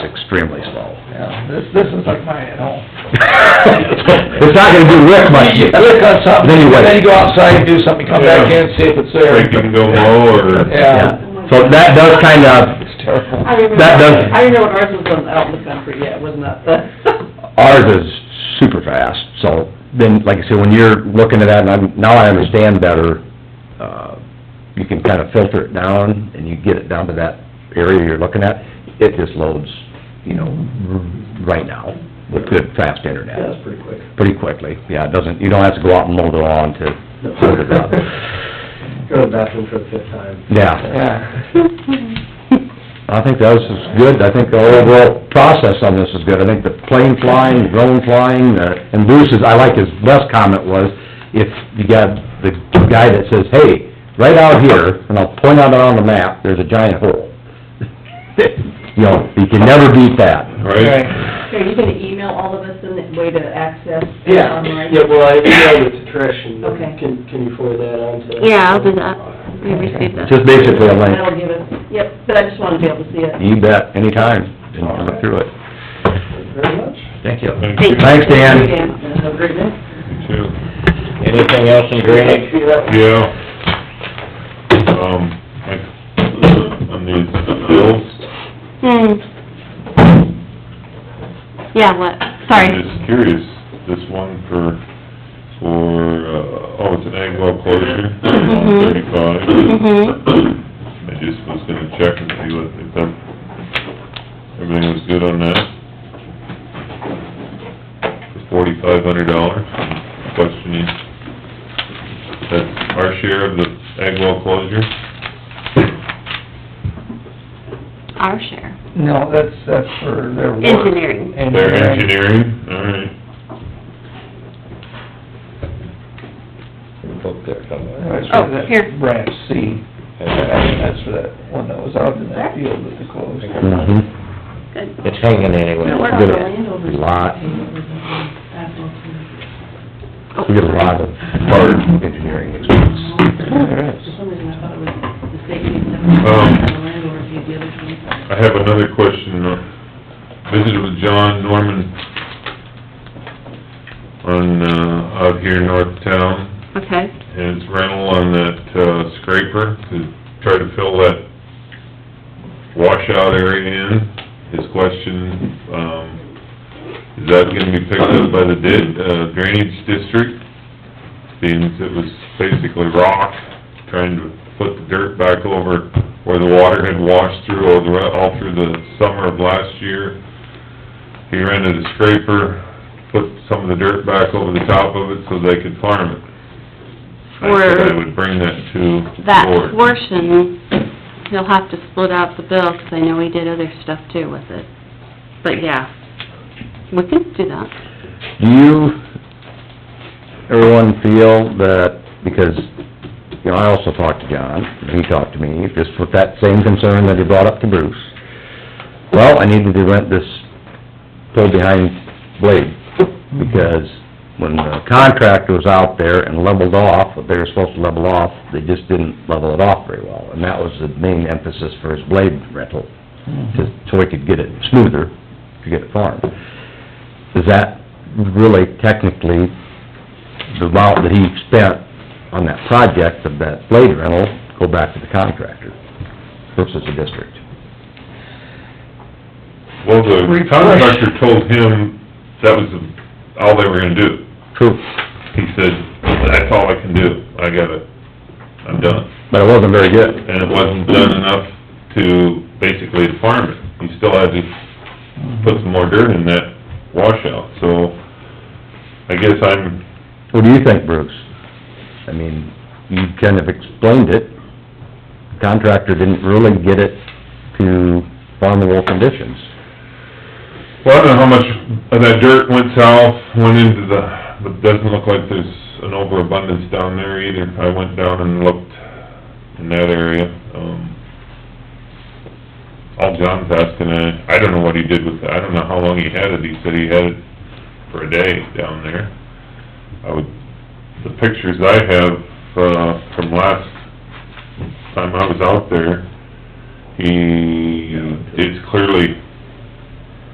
extremely slow. Yeah, this, this is like mine at home. It's not gonna do Rick much. You look on something, Then you wait. then you go outside and do something, come back in, see if it's there. Think you can go low or? Yeah. So that does kind of, It's terrible. I remember, That does- I remember ours was on- out in the country, yeah, it wasn't that the... ours is super fast, so then, like I said, when you're looking at that, and I'm, now I understand better, uh, you can kind of filter it down, and you get it down to that area you're looking at, it just loads, you know, right now, with good, fast internet. That's pretty quick. pretty quickly, yeah, it doesn't, you don't have to go out and mow the lawn to load it up. Go to the bathroom for the fifth time. Yeah, Yeah. I think that was good, I think the overall process on this is good, I think the plane flying, the drone flying, uh, and Bruce's, I like his best comment was, if you got the guy that says, hey, right out here, and I'll point out on the map, there's a giant hole. You know, you can never beat that. Right? Are you gonna email all of us in the way to access the Yeah, online? yeah, well, I emailed it to Trish and Okay. can, can you forward that on to? Yeah, I'll do that. I received that. Just basically a link, That'll give us, yep, but I just wanted to be able to see it. you bet, anytime, and you look through it. Very much. Thank you. Thank you. Thanks, Dan. Have a great night. Anything else in See you later. Yeah. Um, like, on these bills, Hmm. Yeah, what, I'm sorry. just curious, this one for, for, uh, oh, it's an ag well closure, Mhm. on thirty-five. I Mhm. just was gonna check and see what, if that, everything was good on that. For forty-five hundred dollars, questioning, that's our share of the ag well closure? Our share. No, that's, that's for their work. Engineering. Their engineering, all right. That's Oh, for that here. branch C. That's for that one that was out in that field that they closed. Mm-hmm. Good. It's hanging anyway. No, We we're get not a landowners. lot, For Oh, we get a lot of hard engineering expense. There is. some reason, I thought it was the state needs to Oh. Um, have the land or the other one. I have another question. uh, Visited with John Norman on, uh, out here in north town, Okay, his rental on that uh, scraper to try to fill that washout area in. His question, um, is that gonna be picked up by the di- uh, drainage district? Being as it was basically rock, trying to put the dirt back over where the water had washed through all the, all through the summer of last year. He rented a scraper, put some of the dirt back over the top of it so they could farm it. I said I Or- would bring that to that the board. portion, he'll have to split out the bill, 'cause I know he did other stuff too with it. But yeah, we can do that. Do you, everyone feel that, because, you know, I also talked to John, and he talked to me, just with that same concern that he brought up to Bruce. Well, I needed to rent this pull-behind blade, because when the contractor was out there and leveled off, what they were supposed to level off, they just didn't level it off very well, and that was the main emphasis for his blade rental, to, so we could get it smoother, to get it farmed. Is that really technically the amount that he spent on that project of that blade rental go back to the contractor versus the district? Well, the Refresh. contractor told him that was all they were gonna do. True. He said, that's all I can do, I gotta, I'm done. But it wasn't very good. And it wasn't done enough to basically to farm it. He still had to put some more dirt in that washout, so I guess I'm, What do you think, Bruce? I mean, you kind of explained it. Contractor didn't really get it to farmable conditions. well, I don't know how much of that dirt went south, went into the, but it doesn't look like there's an overabundance down there either. I went down and looked in that area, um, all John's asking, uh, I don't know what he did with it, I don't know how long he had it, he said he had it for a day down there. I would, the pictures I have, uh, from last time I was out there, he, it's clearly